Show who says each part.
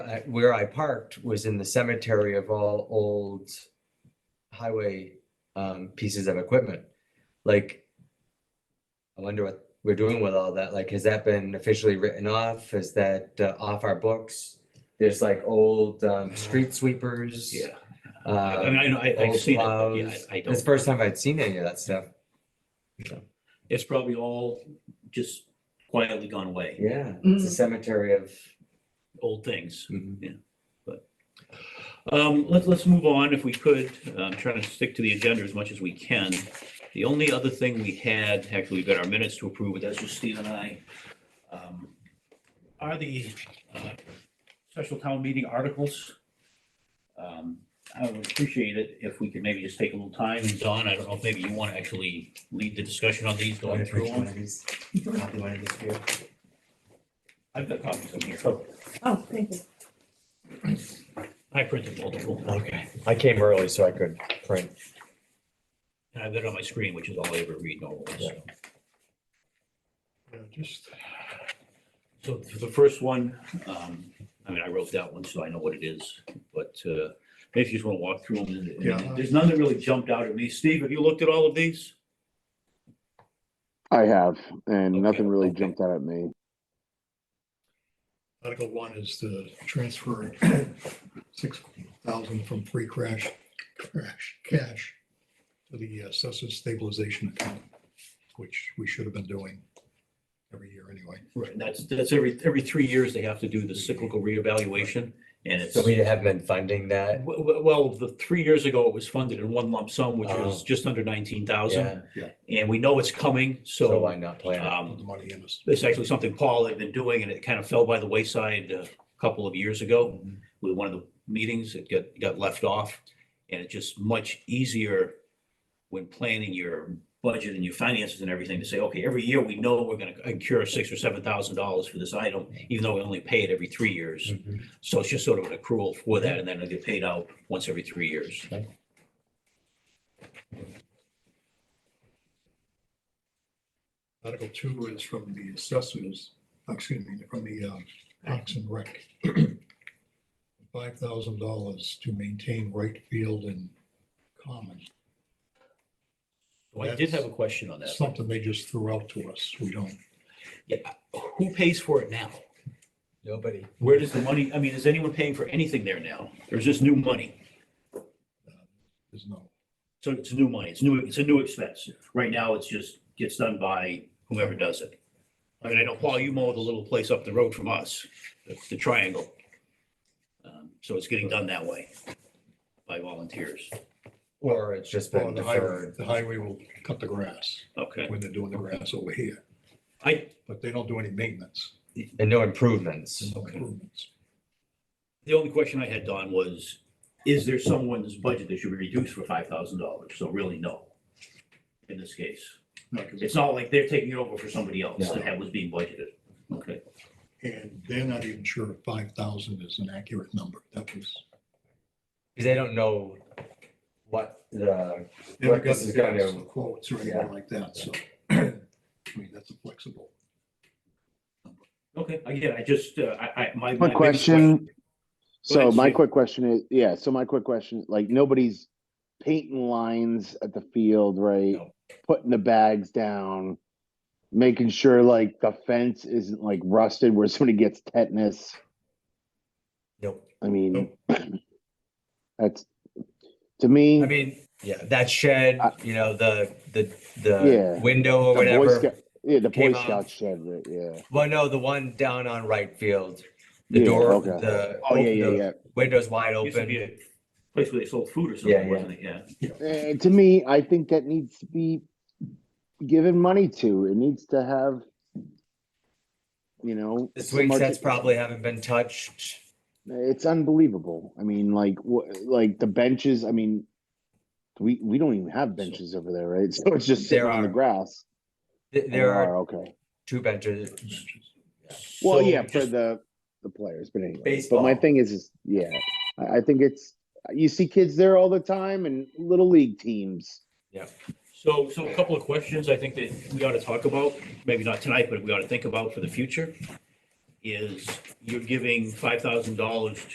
Speaker 1: I, where I parked was in the cemetery of all old highway, um, pieces of equipment. Like, I wonder what we're doing with all that. Like, has that been officially written off? Is that uh, off our books? There's like old, um, street sweepers.
Speaker 2: Yeah, I I
Speaker 1: Uh,
Speaker 2: mean, I know, I, I've
Speaker 1: old
Speaker 2: seen it, but yeah,
Speaker 1: plows.
Speaker 2: I- I
Speaker 1: It's the
Speaker 2: don't,
Speaker 1: first time I'd seen any of that stuff.
Speaker 2: it's probably all just quietly gone away,
Speaker 1: Yeah, it's a
Speaker 3: Mm.
Speaker 1: cemetery of.
Speaker 2: old things.
Speaker 1: Mhm.
Speaker 2: Um, let's, let's move on if we could. I'm trying to stick to the agenda as much as we can. The only other thing we had, actually, we've got our minutes to approve, but that's just Steve and I. um, Are the uh, special town meeting articles? Um, I would appreciate it if we could maybe just take a little time. And Don, I don't know if maybe you want to actually lead the discussion on these going through
Speaker 1: One
Speaker 2: them.
Speaker 1: of these- copy one of these here.
Speaker 2: I've got copies of them here.
Speaker 4: Oh.
Speaker 3: Oh, thank you.
Speaker 2: I printed multiple.
Speaker 4: Okay, I came early so I could print.
Speaker 2: And I've got it on my screen, which is all I ever read normally, so.
Speaker 4: Yeah, Just
Speaker 2: So for the first one, um, I mean, I wrote that one, so I know what it is, but, uh, maybe you just want to walk through them. and-
Speaker 4: Yeah.
Speaker 2: There's none that really jumped out at me. Steve, have you looked at all of these?
Speaker 5: I have, and
Speaker 2: Okay,
Speaker 5: nothing really
Speaker 2: okay.
Speaker 5: jumped out at me.
Speaker 4: Article one is the transfer six thousand from free crash, crash, cash to the assessors stabilization account, which we should have been doing every year anyway.
Speaker 2: Right. That's, that's every, every three years they have to do the cyclical reevaluation and it's,
Speaker 1: So we have been funding that.
Speaker 2: w- w- well, the three years ago it was funded in one lump sum, which was
Speaker 1: Oh.
Speaker 2: just under nineteen
Speaker 1: Yeah,
Speaker 2: thousand. And we know it's coming,
Speaker 1: so
Speaker 2: so,
Speaker 1: why not plan? it?
Speaker 2: um,
Speaker 4: Put the money in us.
Speaker 2: It's actually something Paul had been doing and it kind of fell by the wayside uh, a couple of years ago.
Speaker 1: Mhm.
Speaker 2: With one of the meetings, it got, got left off. And it's just much easier when planning your budget and your finances and everything to say, okay, every year we know we're gonna incur six or seven thousand dollars for this item, even though we only pay it every three years.
Speaker 1: Mhm.
Speaker 2: So it's just sort of an accrual for that and then it'll get paid out once every three years.
Speaker 4: Article two is from the assessors, excuse me, from the um, Parks and Rec. Five thousand dollars to maintain right field and common.
Speaker 2: Well, I did have a question on that.
Speaker 4: Something they just threw out to us. We don't.
Speaker 2: Yeah, Who pays for it now?
Speaker 1: Nobody.
Speaker 2: Where does the money, I mean, is anyone paying for anything there now? Or is this new money?
Speaker 4: There's no,
Speaker 2: So it's new money, it's new, it's a new expense. Right now, it's just gets done by whoever does it. I mean, I know, Paul, you mow the little place up the road from us, the- the triangle. Um, So it's getting done that way by volunteers.
Speaker 1: Or it's just
Speaker 4: well,
Speaker 1: been
Speaker 4: the highway,
Speaker 1: deferred.
Speaker 4: the highway will cut the grass
Speaker 2: Okay,
Speaker 4: when they're doing the grass over here,
Speaker 2: I,
Speaker 4: but they don't do any maintenance.
Speaker 1: And no improvements.
Speaker 4: no
Speaker 2: Okay.
Speaker 4: improvements.
Speaker 2: the only question I had, Don, was, is there someone's budget that should be reduced for five thousand dollars? So really, no. In this case,
Speaker 4: No, 'cause
Speaker 2: it's not like they're taking it over for somebody else
Speaker 1: No.
Speaker 2: that had- was being budgeted. Okay.
Speaker 4: it's- And they're not even sure if five thousand is an accurate number. That was.
Speaker 1: Because they don't know what the,
Speaker 4: they
Speaker 1: Well,
Speaker 4: haven't got
Speaker 1: this is
Speaker 4: the
Speaker 1: gonna-
Speaker 4: costs, the Quotes or
Speaker 1: Yeah.
Speaker 4: anything like that, so. I mean, that's a flexible.
Speaker 2: Okay, again, I just, uh, I, I, my. my
Speaker 5: Quick
Speaker 2: biggest
Speaker 5: question.
Speaker 2: Go
Speaker 5: So
Speaker 2: ahead,
Speaker 5: my
Speaker 2: Steve.
Speaker 5: quick question is, yeah, so my quick question, like nobody's painting lines at the field, right?
Speaker 2: No.
Speaker 5: Putting the bags down, making sure like the fence isn't like rusted where somebody gets tetanus.
Speaker 1: Nope.
Speaker 5: I mean, that's, to me,
Speaker 1: I mean, yeah, that shed,
Speaker 5: I-
Speaker 1: you know, the, the,
Speaker 5: Yeah.
Speaker 1: the window
Speaker 5: the
Speaker 1: or
Speaker 5: Boy
Speaker 1: whatever.
Speaker 5: Scout, yeah, the Boy
Speaker 1: came out-
Speaker 5: Scout shed, right, yeah.
Speaker 1: Well, no, the one down on right field, the
Speaker 5: Yeah,
Speaker 1: door,
Speaker 5: okay.
Speaker 1: the,
Speaker 5: Oh, yeah,
Speaker 1: open-
Speaker 5: yeah,
Speaker 1: the
Speaker 5: yeah.
Speaker 1: windows wide
Speaker 2: question- Used to be
Speaker 1: open.
Speaker 2: a Place where they sold food or
Speaker 1: Yeah,
Speaker 2: something,
Speaker 1: yeah.
Speaker 2: wasn't it? Yeah.
Speaker 5: Uh, to me, I think that needs to be given money to. It needs to have, you know,
Speaker 1: The
Speaker 5: so
Speaker 1: swing
Speaker 5: much-
Speaker 1: sets probably haven't been touched.
Speaker 5: It's unbelievable. I mean, like, what, like the benches. I mean, we we don't even have benches over there, right? So it's just sitting
Speaker 1: There
Speaker 5: on the
Speaker 1: are.
Speaker 5: grass. Oh,
Speaker 1: Th- There are
Speaker 5: okay.
Speaker 1: two benches.
Speaker 2: So
Speaker 5: Well, yeah, for
Speaker 2: just-
Speaker 5: the the players, but anyway. But
Speaker 1: Baseball.
Speaker 5: my thing is, is yeah, I, I think it's you see kids there all the time and little league teams.
Speaker 2: So, so a couple of questions I think that we ought to talk about, maybe not tonight, but we ought to think about for the future. is you're giving five thousand dollars